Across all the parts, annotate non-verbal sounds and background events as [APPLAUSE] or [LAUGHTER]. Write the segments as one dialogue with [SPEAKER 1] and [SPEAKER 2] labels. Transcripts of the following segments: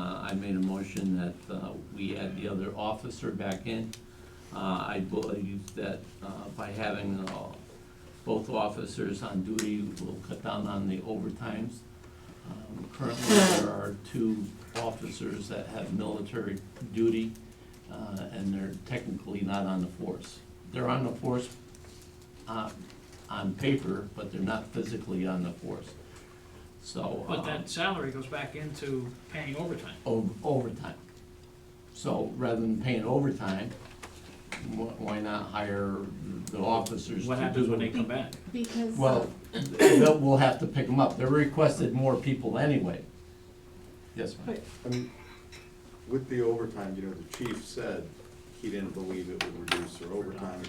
[SPEAKER 1] Uh, I made a motion that uh, we add the other officer back in. Uh, I believe that uh, by having uh, both officers on duty will cut down on the overtimes. Um, Currently, there are two officers that have military duty, uh, and they're technically not on the force. They're on the force uh, on paper, but they're not physically on the force. So.
[SPEAKER 2] But
[SPEAKER 1] uh,
[SPEAKER 2] that salary goes back into paying overtime.
[SPEAKER 1] o- overtime. So rather than paying overtime, wh- why not hire the officers to do?
[SPEAKER 2] What happens when they come back?
[SPEAKER 3] Because.
[SPEAKER 1] Well, they'll- we'll have to pick them up. They requested more people anyway. Yes, ma'am.
[SPEAKER 4] I mean, with the overtime, you know, the chief said he didn't believe it would reduce their overtime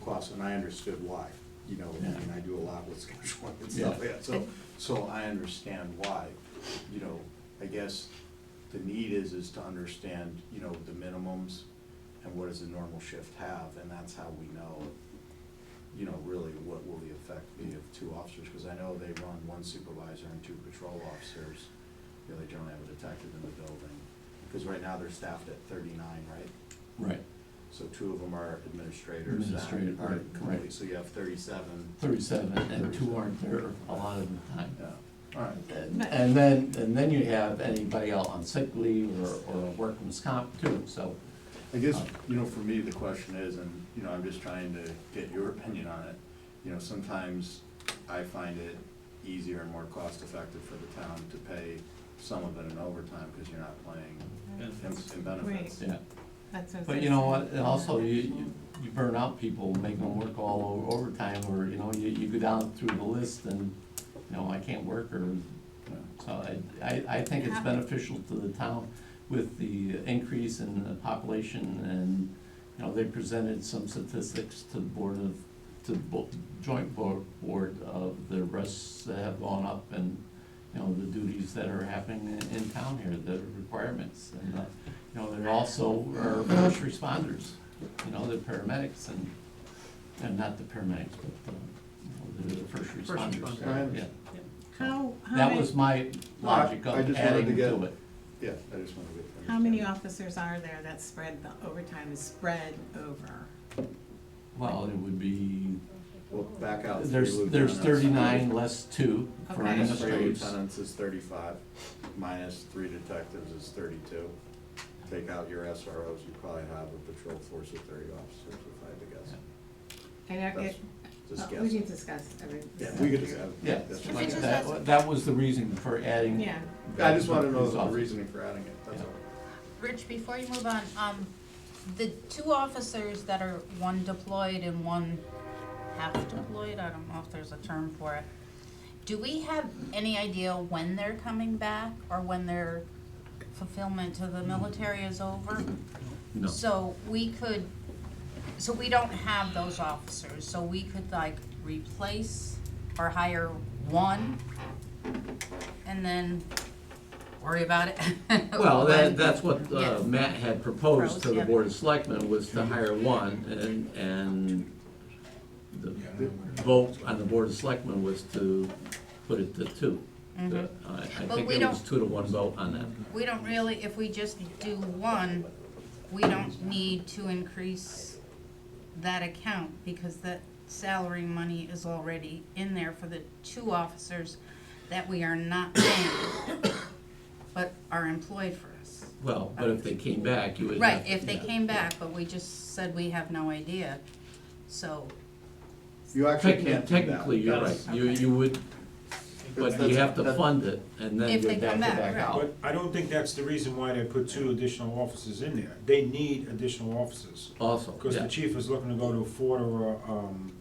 [SPEAKER 4] costs, and I understood why. You know, I mean, I do a lot with [LAUGHS] scheduling and stuff like that, so, so I understand why. You know, I guess the need is, is to understand, you know, the minimums and what does a normal shift have, and that's how we know, you know, really what will the effect be of two officers, because I know they run one supervisor and two patrol officers. You know, they generally have a detective in the building, because right now they're staffed at thirty-nine, right?
[SPEAKER 1] Right,
[SPEAKER 4] So two of them are administrators that
[SPEAKER 1] Administrative,
[SPEAKER 4] are
[SPEAKER 1] right,
[SPEAKER 4] complete,
[SPEAKER 1] right.
[SPEAKER 4] so you have thirty-seven.
[SPEAKER 1] thirty-seven, and two aren't there a lot of the time.
[SPEAKER 4] Yeah, all right.
[SPEAKER 1] And and then, and then you have anybody out on sick leave or, or workman's comp too, so.
[SPEAKER 4] I guess, you know, for me, the question is, and, you know, I'm just trying to get your opinion on it. You know, sometimes I find it easier and more cost-effective for the town to pay some of it in overtime, because you're not playing in- in benefits.
[SPEAKER 1] Yeah,
[SPEAKER 3] That's what I
[SPEAKER 1] but
[SPEAKER 3] was gonna
[SPEAKER 1] you know
[SPEAKER 3] say.
[SPEAKER 1] what, and also you, you- you burn out people, make them work all o- overtime, or, you know, you, you go down through the list and, you know, I can't work, or,
[SPEAKER 4] Yeah.
[SPEAKER 1] so I, I, I think it's beneficial to the town with the increase in the population, and, you know, they presented some statistics to the board of, to the bo- joint board, board of the rests that have gone up, and, you know, the duties that are happening in, in town here, the requirements, and, uh, you know, they're also are first responders, you know, the paramedics and, and not the paramedics, but, um, you know, the first responders.
[SPEAKER 2] responder.
[SPEAKER 1] Yeah.
[SPEAKER 3] How, how
[SPEAKER 1] That
[SPEAKER 3] many,
[SPEAKER 1] was my logic
[SPEAKER 4] I
[SPEAKER 1] of
[SPEAKER 4] just wanted to
[SPEAKER 1] adding
[SPEAKER 4] get-
[SPEAKER 1] to it.
[SPEAKER 4] Yeah, I just wanted to.
[SPEAKER 3] how many officers are there that spread, the overtime is spread over?
[SPEAKER 1] Well, it would be,
[SPEAKER 4] Well, back out. three
[SPEAKER 1] there's, there's
[SPEAKER 4] lieutenants.
[SPEAKER 1] thirty-nine less two for
[SPEAKER 3] Okay.
[SPEAKER 4] Minus three
[SPEAKER 1] administrators.
[SPEAKER 4] lieutenants is thirty-five, minus three detectives is thirty-two. Take out your SROs, you probably have a patrol force of thirty officers, if I had to guess.
[SPEAKER 3] I don't
[SPEAKER 4] That's
[SPEAKER 3] get,
[SPEAKER 4] Just
[SPEAKER 3] oh, we can
[SPEAKER 4] guess.
[SPEAKER 3] discuss every.
[SPEAKER 4] Yeah, we could just have.
[SPEAKER 1] Yeah,
[SPEAKER 4] that's
[SPEAKER 3] If
[SPEAKER 1] like
[SPEAKER 3] it's
[SPEAKER 4] fine.
[SPEAKER 1] that, that was the reason for adding.
[SPEAKER 3] Yeah,
[SPEAKER 4] I just wanna know
[SPEAKER 1] these
[SPEAKER 4] the
[SPEAKER 1] officers.
[SPEAKER 4] reasoning for adding it, that's
[SPEAKER 1] Yeah.
[SPEAKER 4] all.
[SPEAKER 5] Rich, before you move on, um, the two officers that are, one deployed and one half deployed, I don't know if there's a term for it. Do we have any idea when they're coming back or when their fulfillment to the military is over?
[SPEAKER 1] No.
[SPEAKER 5] So we could, so we don't have those officers, so we could like replace or hire one and then worry about it. [LAUGHS]
[SPEAKER 1] Well,
[SPEAKER 5] when-
[SPEAKER 1] that, that's what uh,
[SPEAKER 5] Oh, Yeah.
[SPEAKER 1] Matt had proposed to
[SPEAKER 5] Proposed,
[SPEAKER 1] the
[SPEAKER 5] yeah.
[SPEAKER 1] Board of Selectmen, was to hire one, and, and the vote on the Board of Selectmen was to put it to two. Uh, I, I
[SPEAKER 5] But
[SPEAKER 1] think
[SPEAKER 5] Mm-hmm. we
[SPEAKER 1] it was
[SPEAKER 5] don't-
[SPEAKER 1] two to one vote on that.
[SPEAKER 5] We don't really, if we just do one, we don't need to increase that account because that salary money is already in there for the two officers that we are not paying, but are employed for us.
[SPEAKER 1] Well, but if they came back, you would have.
[SPEAKER 5] Right, if they
[SPEAKER 1] yeah.
[SPEAKER 5] came back, but we just said we have no idea, so,
[SPEAKER 4] You actually
[SPEAKER 1] Technically,
[SPEAKER 4] can't do that.
[SPEAKER 1] technically, you're right,
[SPEAKER 2] That's-
[SPEAKER 1] you, you would, but you
[SPEAKER 4] That's-
[SPEAKER 1] have to
[SPEAKER 4] that-
[SPEAKER 1] fund it, and then
[SPEAKER 5] If
[SPEAKER 1] you're
[SPEAKER 5] they
[SPEAKER 1] back to
[SPEAKER 5] come back,
[SPEAKER 1] back
[SPEAKER 5] right.
[SPEAKER 1] out.
[SPEAKER 6] But I don't think that's the reason why they put two additional officers in there. They need additional officers,
[SPEAKER 1] Also,
[SPEAKER 6] because
[SPEAKER 1] yeah.
[SPEAKER 6] the chief is looking to go to a four or, a, um,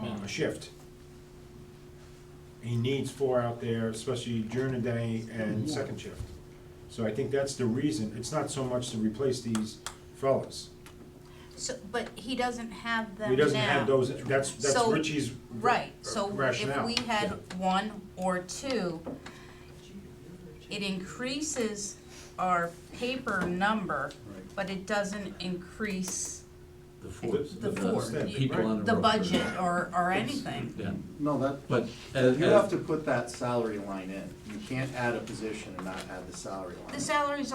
[SPEAKER 6] uh, a shift. He needs four out there, especially during the day and second shift. So I think that's the reason. It's not so much to replace these fellas.
[SPEAKER 5] so, but he doesn't have them now.
[SPEAKER 6] He doesn't have those, that's, that's
[SPEAKER 5] So-
[SPEAKER 6] Richie's
[SPEAKER 5] Right, so if
[SPEAKER 6] rationale.
[SPEAKER 5] we had one or two, it increases our paper number,
[SPEAKER 4] Right.
[SPEAKER 5] but it doesn't increase
[SPEAKER 1] The force,
[SPEAKER 6] The-
[SPEAKER 1] the,
[SPEAKER 5] the force,
[SPEAKER 1] the people on the road.
[SPEAKER 5] the budget or, or anything.
[SPEAKER 1] Yeah,
[SPEAKER 4] No, that,
[SPEAKER 1] but as,
[SPEAKER 4] you
[SPEAKER 1] as
[SPEAKER 4] have to put that salary line in. You can't add a position and not add the salary line.
[SPEAKER 5] The salaries